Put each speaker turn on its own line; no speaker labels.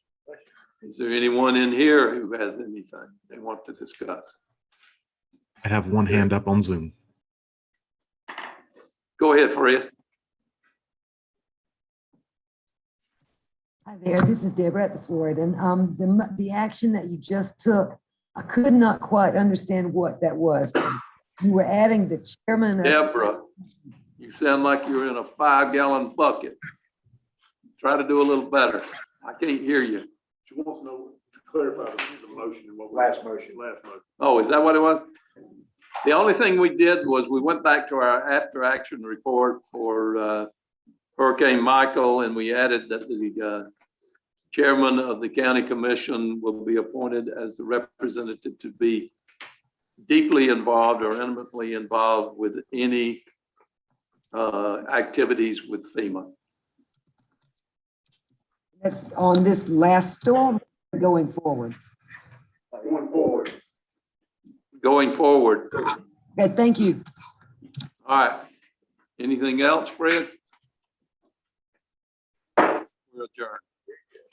Is there anyone in here who has anything they want to discuss?
I have one hand up on Zoom.
Go ahead, Fred.
Hi there, this is Deborah at the Florida. Um, the, mo- the action that you just took, I could not quite understand what that was. You were adding the chairman. of-
Deborah, you sound like you're in a five gallon bucket. Try to do a little better. I can't hear you.
She wants to know, to clarify the motion and what. Last motion. Last motion.
Oh, is that what it was? The only thing we did was we went back to our after action report for uh, Hurricane Michael and we added that the uh, chairman of the county commission will be appointed as the representative to be deeply involved or intimately involved with any uh, activities with FEMA.
That's on this last storm going forward.
Going forward.
going forward.
Okay, thank you.
All right. Anything else, Fred? We're adjourned.